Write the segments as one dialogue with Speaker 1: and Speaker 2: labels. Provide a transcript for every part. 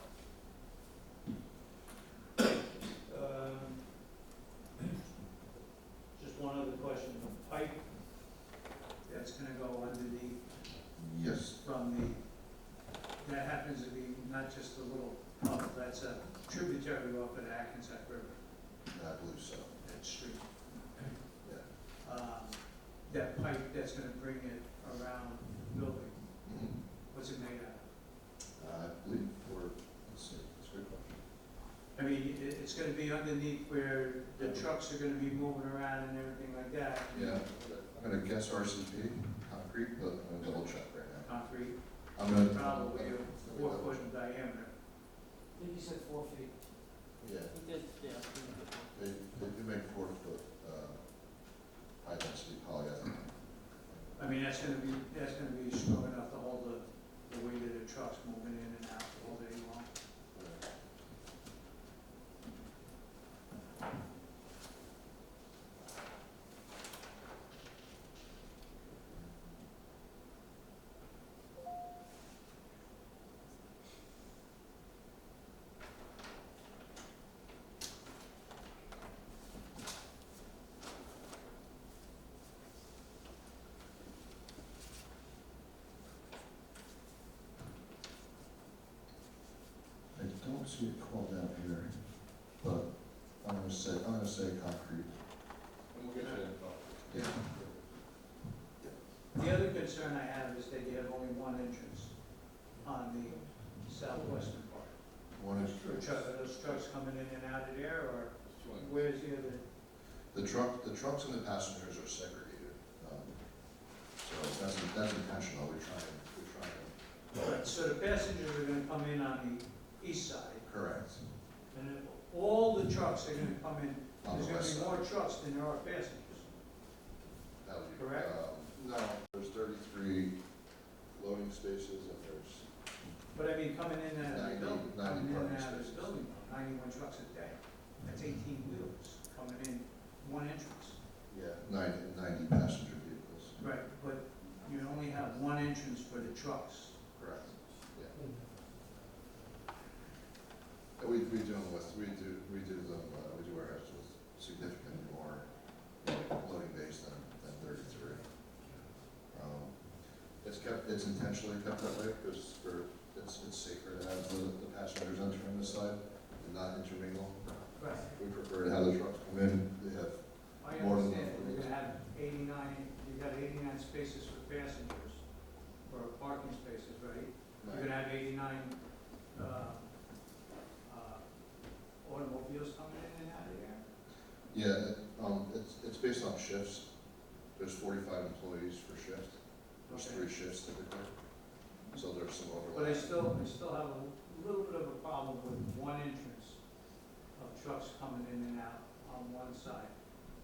Speaker 1: Um, Little Pump, that's a tributary off of the Atkinsack River,
Speaker 2: I believe so,
Speaker 1: that street.
Speaker 2: yeah.
Speaker 1: Um, That pipe that's gonna bring it around the building,
Speaker 2: Mhm.
Speaker 1: what's it made out
Speaker 2: I believe we're, let's see, that's a good question.
Speaker 1: of? I mean, it, it's gonna be underneath where the trucks are gonna be moving around and everything like that.
Speaker 2: Yeah, I'm gonna guess RCP, concrete, but I'm gonna double check right now.
Speaker 1: Concrete,
Speaker 2: I'm gonna.
Speaker 1: probably
Speaker 2: Let me
Speaker 1: a four
Speaker 2: double
Speaker 1: foot
Speaker 2: check.
Speaker 1: in diameter.
Speaker 3: I think you said four feet.
Speaker 2: Yeah,
Speaker 3: He did, yeah. I think he did.
Speaker 2: they, they do make four foot, uh, high density polyethylene.
Speaker 1: I mean, that's gonna be, that's gonna be strong enough to hold the, the weight of the trucks moving in and out all day long.
Speaker 2: I don't see it called out here, but I'm gonna say, I'm gonna say concrete,
Speaker 4: And we'll get to that.
Speaker 2: yeah.
Speaker 1: The other concern I have is that you have only one entrance on the southwestern part.
Speaker 2: One is
Speaker 1: Are truck- are those trucks coming in and out of there, or
Speaker 4: It's one.
Speaker 1: where's the other?
Speaker 2: The truck, the trucks and the passengers are segregated. um, So that's, that's intentional, we're trying, we're trying to.
Speaker 1: Right, So the passengers are gonna come in on the east side,
Speaker 2: Correct.
Speaker 1: and then all the trucks are gonna come in,
Speaker 2: On the
Speaker 1: there's
Speaker 2: west
Speaker 1: gonna be
Speaker 2: side.
Speaker 1: more trucks than there are passengers.
Speaker 2: That would be-
Speaker 1: Correct?
Speaker 2: um, No, there's thirty-three loading spaces and there's,
Speaker 1: But I mean, coming in and out of the building,
Speaker 2: 90
Speaker 1: coming in and
Speaker 2: parking
Speaker 1: out of the
Speaker 2: spaces.
Speaker 1: building, ninety-one trucks a day, that's eighteen wheels coming in, one entrance.
Speaker 2: yeah, ninety, ninety passenger vehicles.
Speaker 1: Right, but you only have one entrance for the trucks.
Speaker 2: Correct, yeah. And we, we do them with, we do, we do them, uh, we do our ours with significantly more loading base than, than thirty-three. Um, It's kept, it's intentionally kept that way because for, it's, it's safer to have the, the passengers enter on this side and not intermingle.
Speaker 1: Right.
Speaker 2: We prefer to have the trucks come in, they have,
Speaker 1: I
Speaker 2: More than
Speaker 1: understand,
Speaker 2: enough.
Speaker 1: you're gonna have eighty-nine, you got eighty-nine spaces for passengers, or parking spaces, right? You're gonna have eighty-nine, uh, uh, automobiles coming in and out of there?
Speaker 2: yeah, um, it's, it's based on shifts. There's forty-five employees per shift. There's
Speaker 1: Okay.
Speaker 2: three shifts typically, so there's some
Speaker 1: But I
Speaker 2: overlap.
Speaker 1: still, I still have a little bit of a problem with one entrance of trucks coming in and out on one side.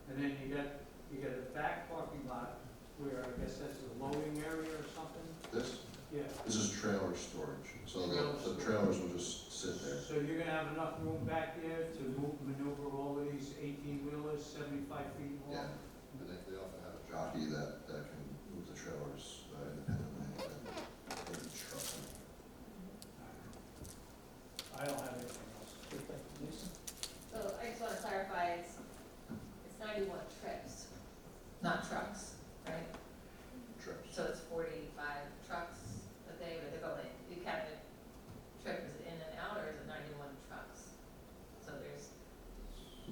Speaker 1: And then you got, you got a back parking lot where I guess that's a loading area or something,
Speaker 2: This,
Speaker 1: yeah.
Speaker 2: this is trailer storage, so
Speaker 1: Trailer
Speaker 2: the, the
Speaker 1: storage.
Speaker 2: trailers will just sit there.
Speaker 1: So you're gonna have enough room back there to move, maneuver all of these eighteen wheelers, seventy-five feet long?
Speaker 2: Yeah, and they, they often have a jockey that, that can move the trailers uh, independently and they can truck them.
Speaker 1: I don't have anything else.
Speaker 5: So I just wanna clarify, it's, it's ninety-one trips, not trucks, right?
Speaker 2: Trips.
Speaker 5: So it's forty-five trucks a day, but they're going, you count the trip as in and out, or is it ninety-one trucks? So there's,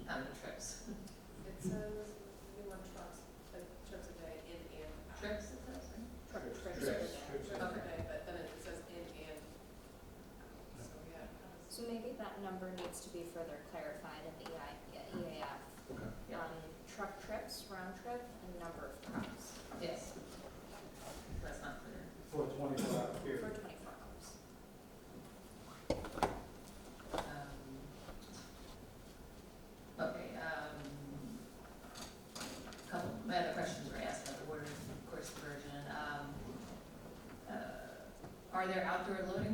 Speaker 5: how many trips?
Speaker 6: It says we want trucks, uh, trips a day in and out.
Speaker 5: Trips is that, right?
Speaker 6: Truck trips a
Speaker 4: Trips.
Speaker 6: day,
Speaker 4: Trips.
Speaker 6: trips a day, but then it says in and out, so yeah.
Speaker 7: So maybe that number needs to be further clarified in the E EI EAF
Speaker 2: Okay.
Speaker 5: Yeah.
Speaker 7: on um, truck trips, round trip, and number of trucks
Speaker 5: Yes. That's not clear.
Speaker 1: For a twenty-four hour
Speaker 7: for
Speaker 1: period.
Speaker 7: twenty-four hours.
Speaker 5: Um, Okay, um, couple, my other questions were asked about the water course diversion. Um, uh, Are there outdoor
Speaker 2: Uh,
Speaker 5: loading Um,